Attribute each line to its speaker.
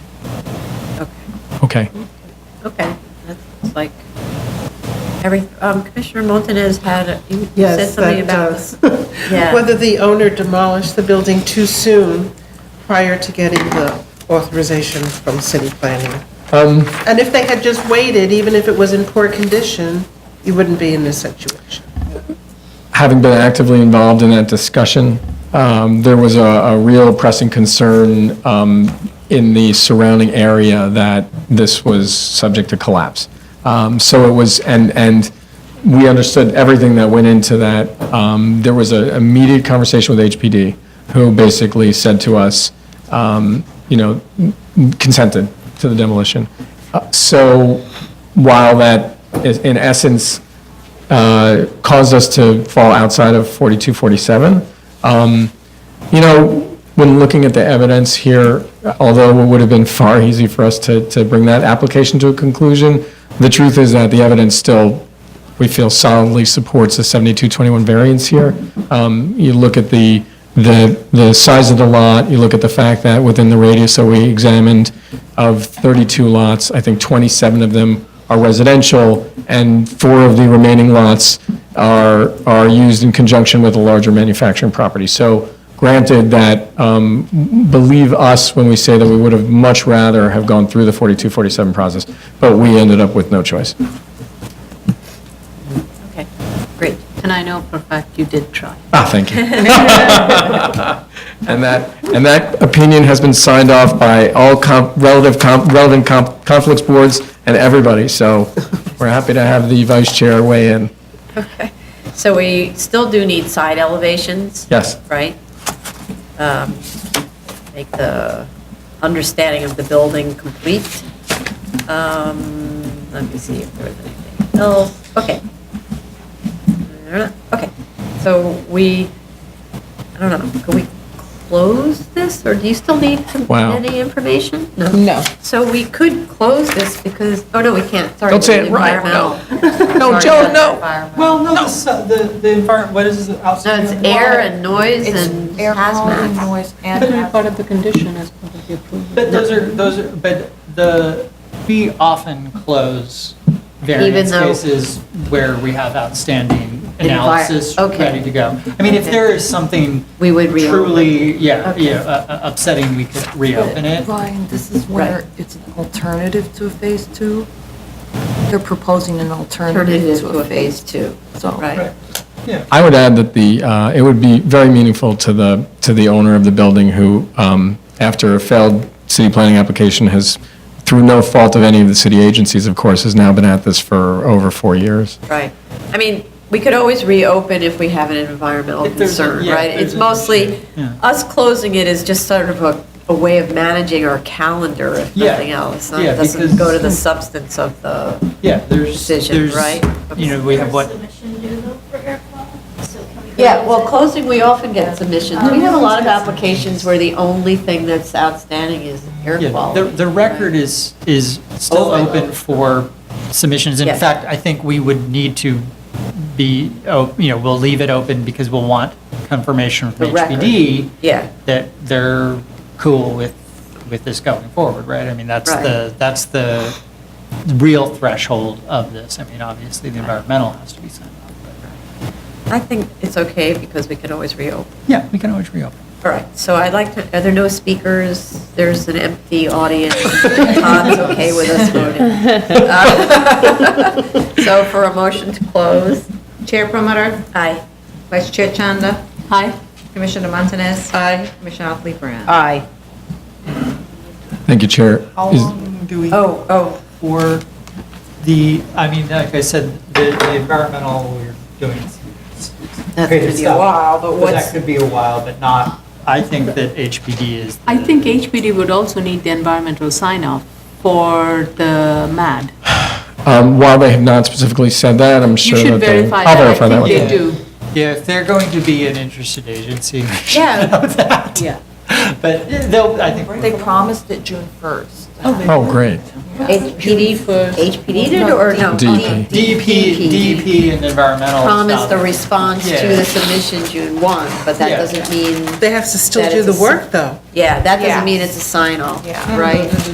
Speaker 1: Okay.
Speaker 2: Okay, that's like, every, um, Commissioner Montanez had, you you said
Speaker 3: Yes,
Speaker 2: something
Speaker 3: that uh,
Speaker 2: about.
Speaker 3: does.
Speaker 2: Yeah.
Speaker 3: Whether the owner demolished the building too soon prior to getting the authorization from city planning.
Speaker 1: Um,
Speaker 3: And if they had just waited, even if it was in poor condition, you wouldn't be in this situation.
Speaker 1: having been actively involved in that discussion, um, there was a, a real pressing concern um, in the surrounding area that this was subject to collapse. Um, So it was, and, and we understood everything that went into that. Um, There was a immediate conversation with HPD, who basically said to us, um, you know, consented to the demolition. Uh, So while that is, in essence, uh, caused us to fall outside of 4247. Um, You know, when looking at the evidence here, although it would have been far easy for us to, to bring that application to a conclusion, the truth is that the evidence still, we feel solidly supports the 7221 variance here. Um, You look at the, the, the size of the lot, you look at the fact that within the radius that we examined of 32 lots, I think 27 of them are residential, and four of the remaining lots are, are used in conjunction with a larger manufacturing property. So granted that, um, believe us when we say that we would have much rather have gone through the 4247 process, but we ended up with no choice.
Speaker 2: Okay, great. And I know for a fact you did try.
Speaker 1: Ah, thank you. And that, and that opinion has been signed off by all com- relative, com- relevant com- conflicts boards and everybody, so we're happy to have the vice chair weigh in.
Speaker 2: Okay. So we still do need side elevations?
Speaker 1: Yes.
Speaker 2: Right? Um, Make the understanding of the building complete. Um, Let me see if there was anything else. Okay. Okay, so we, I don't know, can we close this, or do you still need some-
Speaker 1: Wow.
Speaker 2: any information?
Speaker 4: No.
Speaker 2: So we could close this because, oh, no, we can't, sorry.
Speaker 1: Don't say it right,
Speaker 2: environmental.
Speaker 4: No,
Speaker 2: Sorry,
Speaker 4: Joe,
Speaker 2: that's
Speaker 4: no.
Speaker 2: environmental.
Speaker 4: Well,
Speaker 5: No, so the, the environment, what is it
Speaker 2: No,
Speaker 5: outside?
Speaker 2: it's
Speaker 5: of the
Speaker 2: air
Speaker 5: water?
Speaker 2: and noise and
Speaker 4: It's air quality,
Speaker 2: hazmat.
Speaker 4: noise, and
Speaker 6: Part of the condition as part of the approval.
Speaker 5: But those are, those are, but the, we often close
Speaker 2: Even
Speaker 5: variance
Speaker 2: though-
Speaker 5: cases where we have outstanding
Speaker 2: Envi-
Speaker 5: analysis
Speaker 2: okay.
Speaker 5: ready to go. I mean, if
Speaker 2: Okay.
Speaker 5: there is something
Speaker 2: We would reopen.
Speaker 5: truly, yeah,
Speaker 2: Okay.
Speaker 5: yeah, uh, uh, upsetting, we could reopen it.
Speaker 4: Ryan, this is where
Speaker 2: Right.
Speaker 4: it's an alternative to a phase two. They're proposing an
Speaker 2: Turn it
Speaker 4: alternative
Speaker 2: into
Speaker 4: to
Speaker 2: a
Speaker 4: a phase.
Speaker 2: phase two,
Speaker 4: So
Speaker 2: right?
Speaker 5: Right. Yeah.
Speaker 1: I would add that the, uh, it would be very meaningful to the, to the owner of the building who, um, after a failed city planning application has, through no fault of any of the city agencies, of course, has now been at this for over four years.
Speaker 2: Right. I mean, we could always reopen if we have an environmental
Speaker 5: If there's a-
Speaker 2: concern,
Speaker 5: yeah, if
Speaker 2: right?
Speaker 5: there's
Speaker 2: It's
Speaker 5: an
Speaker 2: mostly,
Speaker 5: issue, yeah.
Speaker 2: us closing it is just sort of a, a way of managing our calendar, if
Speaker 5: Yeah.
Speaker 2: nothing else. It
Speaker 5: Yeah,
Speaker 2: doesn't
Speaker 5: because-
Speaker 2: go to the substance of the,
Speaker 5: Yeah, there's,
Speaker 2: Decision,
Speaker 5: there's,
Speaker 2: right?
Speaker 5: you know, we have what,
Speaker 7: Submission due though for air quality? So can we go
Speaker 2: yeah, well,
Speaker 7: visit?
Speaker 2: closing, we often get submissions. We have a lot of applications where the only thing that's outstanding is air
Speaker 5: Yeah,
Speaker 2: quality.
Speaker 5: the, the record is, is still
Speaker 2: Open.
Speaker 5: open for submissions. In
Speaker 2: Oh, Yes.
Speaker 5: fact, I think we would need to be, oh, you know, we'll leave it open because we'll want confirmation
Speaker 2: The
Speaker 5: from
Speaker 2: record.
Speaker 5: HPD
Speaker 2: Yeah.
Speaker 5: that they're cool with, with this going forward, right? I mean, that's
Speaker 2: Right.
Speaker 5: the, that's the real threshold of this. I mean, obviously, the environmental has to be signed off. but-
Speaker 2: I think it's okay because we can always reopen.
Speaker 5: Yeah, we can always reopen.
Speaker 2: All right, so I'd like to, are there no speakers? There's an empty audience. Todd's okay with us voting. So for a motion to close?
Speaker 8: Chair Promoter,
Speaker 2: Aye.
Speaker 8: Vice Chair Chanda,
Speaker 2: Aye.
Speaker 8: Commissioner Montanez,
Speaker 2: Aye.
Speaker 8: Commissioner Otley Brown.
Speaker 4: Aye.
Speaker 1: Thank you, Chair.
Speaker 5: How
Speaker 1: Is-
Speaker 5: long do we?
Speaker 2: Oh, oh,
Speaker 5: for the, I mean, like I said, the the environmental, we're doing.
Speaker 2: that's going to be a while, but
Speaker 5: That
Speaker 2: what's,
Speaker 5: could be a while, but not, I think that HPD is.
Speaker 6: I think HPD would also need the environmental sign-off for the MAD.
Speaker 1: Um, While they have not specifically said that, I'm
Speaker 6: You
Speaker 1: sure
Speaker 6: should
Speaker 1: that they.
Speaker 6: verify
Speaker 1: I'll
Speaker 6: that. I
Speaker 1: verify that
Speaker 6: think
Speaker 1: with
Speaker 6: they
Speaker 1: them.
Speaker 6: do.
Speaker 5: Yeah, if they're going to be an interested agency, we should
Speaker 6: Yeah.
Speaker 5: know that.
Speaker 6: Yeah.
Speaker 5: But they'll, I think.
Speaker 4: They promised it June 1st.
Speaker 1: Oh, great.
Speaker 2: HPD,
Speaker 6: first.
Speaker 2: HPD did or no?
Speaker 1: DEP.
Speaker 5: DEP,
Speaker 2: DEP.
Speaker 5: DEP E and environmental.
Speaker 2: Promised the
Speaker 5: stuff.
Speaker 2: response to
Speaker 5: Yeah.
Speaker 2: the submission June 1, but that
Speaker 5: Yeah.
Speaker 2: doesn't mean,
Speaker 3: They have to still
Speaker 2: That
Speaker 3: do
Speaker 2: is
Speaker 3: the
Speaker 2: a s-
Speaker 3: work, though.
Speaker 2: yeah, that
Speaker 4: Yeah.
Speaker 2: doesn't mean it's a sign-off,
Speaker 8: Mm-hmm.
Speaker 4: Yeah.
Speaker 2: right?